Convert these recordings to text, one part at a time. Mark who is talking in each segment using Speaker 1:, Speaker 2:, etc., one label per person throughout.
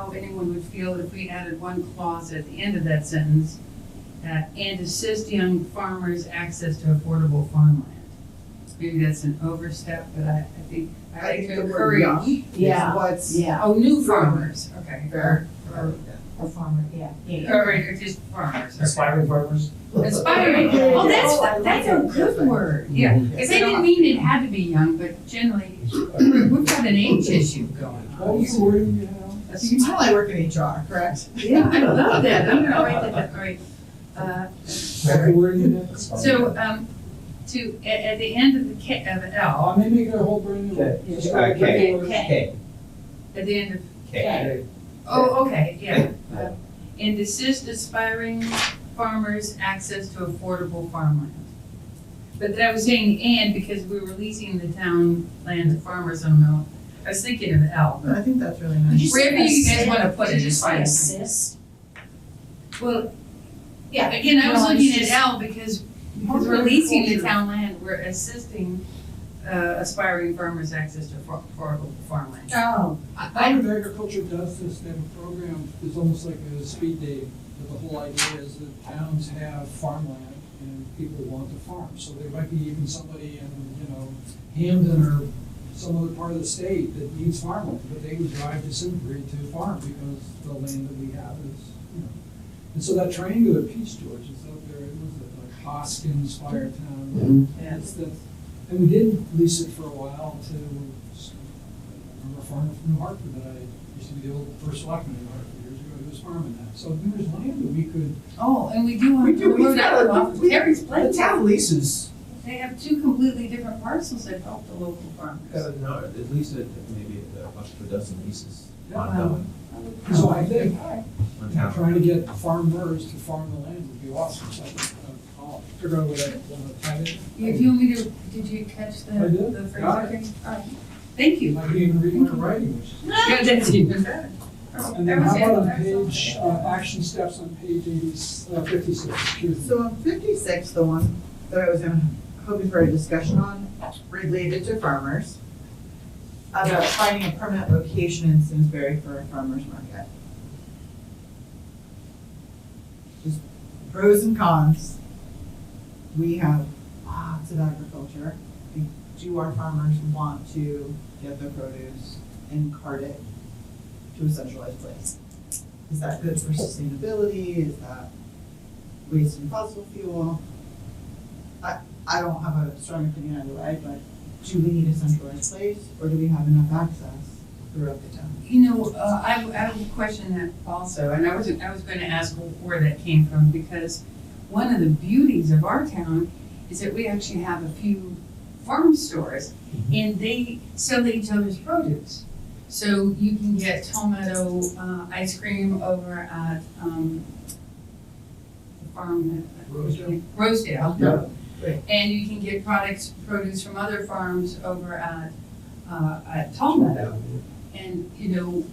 Speaker 1: how anyone would feel if we added one clause at the end of that sentence, uh, and assist young farmers access to affordable farmland. Maybe that's an overstep, but I, I think, I like to encourage.
Speaker 2: Yeah,
Speaker 3: What's.
Speaker 2: yeah,
Speaker 1: Oh, new farmers, okay.
Speaker 3: Fair.
Speaker 1: Or,
Speaker 2: or farmer, yeah, yeah.
Speaker 1: or or just farmers. okay.
Speaker 4: Aspiring farmers?
Speaker 1: Aspiring, oh,
Speaker 2: Oh, I
Speaker 1: that's,
Speaker 2: like
Speaker 1: that's
Speaker 2: it.
Speaker 1: a good word, yeah, because they didn't mean it had to be young, but generally, we've got an age issue going
Speaker 4: What
Speaker 1: on.
Speaker 4: was the word you had?
Speaker 3: So you can tell I work in HR, correct?
Speaker 1: Yeah, I love that, I'm gonna write that, down. all right. Uh,
Speaker 4: What the word you had?
Speaker 1: So, um, to, at, at the end of the K, of L,
Speaker 4: Oh, I may make it a whole brand new one.
Speaker 5: Okay.
Speaker 4: Just
Speaker 5: Okay.
Speaker 4: go with the word.
Speaker 2: Okay.
Speaker 5: K,
Speaker 1: at the end of,
Speaker 5: K.
Speaker 1: oh, okay, yeah. Uh, And assist aspiring farmers access to affordable farmland. But that I was saying and because we were leasing the town land to farmers on Mill, I was thinking of L.
Speaker 3: I think that's really
Speaker 2: Did
Speaker 3: nice.
Speaker 2: say
Speaker 1: Wherever you guys
Speaker 2: assist?
Speaker 1: wanna put it,
Speaker 2: Did you
Speaker 1: it's
Speaker 2: say
Speaker 1: fine.
Speaker 2: Assist?
Speaker 1: Well,
Speaker 2: Yeah.
Speaker 1: again, I was
Speaker 2: Well, it's
Speaker 1: looking at
Speaker 2: just-
Speaker 1: L because, because we're leasing the town land, we're assisting, uh, aspiring farmers access to affor- affordable farmland.
Speaker 2: Oh,
Speaker 4: Department of Agriculture does this, they have a program, it's almost like a speed date, but the whole idea is that towns have farmland and people want to farm, so there might be even somebody in, you know, Hamden or some other part of the state that needs farmland, but they would drive to Simsbury to farm because the land that we have is, you know. And so that triangular piece, George, is up there, it was at like Hoskins Fire Town, it's the, and we did lease it for a while to, remember a farmer from New Hartford that I, used to be the old first selectman in New Hartford years ago, he was farming that. So there was land that we could,
Speaker 1: Oh, and we do
Speaker 3: We
Speaker 1: want.
Speaker 3: do,
Speaker 1: we're
Speaker 3: we've
Speaker 1: not
Speaker 3: got a,
Speaker 1: off
Speaker 3: we,
Speaker 1: Terry's
Speaker 3: the
Speaker 1: place.
Speaker 3: town leases.
Speaker 1: They have two completely different parcels that help the local farmers.
Speaker 5: Uh, No, at least it, maybe uh, up to a dozen leases
Speaker 3: Oh,
Speaker 4: Yeah.
Speaker 5: ongoing
Speaker 4: so I think,
Speaker 5: on town.
Speaker 4: trying to get farmers to farm the land would be awesome, so I think, uh, I'll figure out what I want to tie it.
Speaker 1: Yeah, do you want me to, did you catch the,
Speaker 4: I did.
Speaker 1: the phrase?
Speaker 4: Got
Speaker 1: Okay. All right. Thank
Speaker 4: You
Speaker 1: you.
Speaker 4: might even read my writing, which is.
Speaker 1: Yeah, that's even better.
Speaker 4: And then how about on page, uh, action steps on page eighty, uh, fifty-six, excuse me.
Speaker 3: So on fifty-six, the one that I was gonna- hoping for a discussion on related to farmers, about finding a permanent location in Simsbury for a farmer's market. Just pros and cons. We have lots of agriculture. And Do our farmers want to get their produce and cart it to a centralized place? Is that good for sustainability? Is that wasting fossil fuel. I, I don't have a strong opinion either way, but do we need a centralized place or do we have enough access throughout the town?
Speaker 1: You know, uh, I, I would question that also, and I wasn't, I was gonna ask where that came from, because one of the beauties of our town is that we actually have a few farm stores,
Speaker 4: Mm-hmm.
Speaker 1: and they sell each other's produce. So you can get tomato, uh, ice cream over at, um, the farm that.
Speaker 4: Rosedale?
Speaker 1: Rosedale.
Speaker 4: Yeah.
Speaker 3: Right.
Speaker 1: And you can get products, produce from other farms over at, uh, at Tomato. And, you know,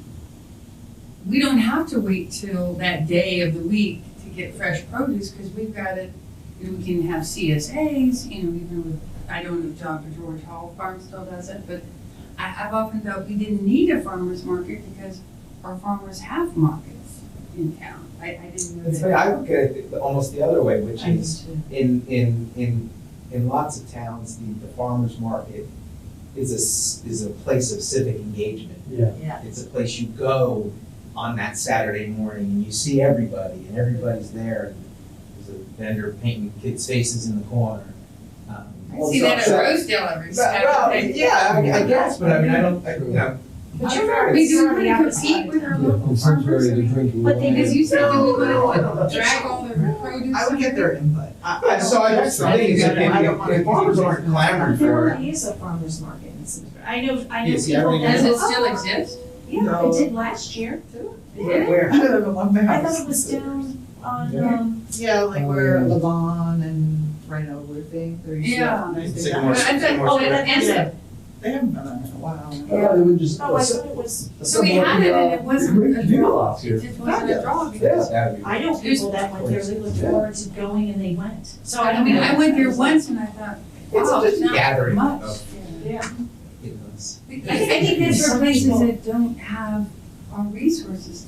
Speaker 1: we don't have to wait till that day of the week to get fresh produce, because we've got it, you know, we can have CSAs, you know, even with, I don't know if Dr. George Hall Farm still does it, but I, I've often thought we didn't need a farmer's market because our farmers have markets in town. I, I didn't know
Speaker 5: It's
Speaker 1: that.
Speaker 5: funny, I look at it the- almost the other way, which
Speaker 1: I need
Speaker 5: is
Speaker 1: to-
Speaker 5: in, in, in, in lots of towns, the, the farmer's market is a, s- is a place of civic engagement.
Speaker 4: Yeah.
Speaker 2: Yeah.
Speaker 5: It's a place you go on that Saturday morning and you see everybody and everybody's there. and There's a vendor painting kids' faces in the corner. Um,
Speaker 1: I see that at
Speaker 5: so-
Speaker 1: Rosedale every
Speaker 5: Well, well,
Speaker 1: Saturday.
Speaker 5: yeah, I, I guess, but I mean, I don't, I, you know.
Speaker 2: But
Speaker 5: I
Speaker 2: you're
Speaker 5: don't know,
Speaker 2: right,
Speaker 1: We
Speaker 5: it's-
Speaker 1: do want to compete with our local farmers. I mean,
Speaker 2: But they
Speaker 1: Because
Speaker 2: just,
Speaker 1: you said you would
Speaker 3: No.
Speaker 1: drag all the produce.
Speaker 3: I would get their input.
Speaker 5: But so I, that's the thing, is that
Speaker 3: I don't
Speaker 5: if,
Speaker 3: wanna-
Speaker 5: if farmers aren't clamoring
Speaker 2: there
Speaker 5: for it,
Speaker 2: already is a farmer's market in Simsbury. I know, I know
Speaker 5: You see, I
Speaker 2: people
Speaker 5: already
Speaker 2: that.
Speaker 1: Does it still exist?
Speaker 2: Yeah,
Speaker 3: No.
Speaker 2: it did last year too.
Speaker 1: Yeah.
Speaker 3: Where? I don't know, one my
Speaker 2: I
Speaker 3: house.
Speaker 2: thought it was down on,
Speaker 4: Yeah.
Speaker 2: um,
Speaker 3: Yeah, like where
Speaker 4: Um,
Speaker 3: Levon and Rhino Roofing, they're usually
Speaker 1: Yeah.
Speaker 3: nice big
Speaker 5: Sycamore.
Speaker 3: houses.
Speaker 1: I thought-
Speaker 5: Oh,
Speaker 1: and
Speaker 5: yeah.
Speaker 1: then-
Speaker 3: They haven't done that in a while.
Speaker 4: Yeah, they would just.
Speaker 2: oh, I thought it was,
Speaker 1: So we had it and it wasn't a draw.
Speaker 5: last
Speaker 1: It just wasn't a draw
Speaker 5: Yeah,
Speaker 1: because,
Speaker 5: that'd be.
Speaker 2: I know people that went there, they looked forward to going and they went. So I
Speaker 1: I
Speaker 2: don't
Speaker 1: mean,
Speaker 2: know.
Speaker 1: I went there once and I thought,
Speaker 5: It's
Speaker 1: wow,
Speaker 5: just
Speaker 1: it's
Speaker 5: a
Speaker 1: not
Speaker 5: gathering
Speaker 1: much.
Speaker 5: of,
Speaker 2: Yeah.
Speaker 5: you know, it's-
Speaker 1: I I think that's for places that don't have our resources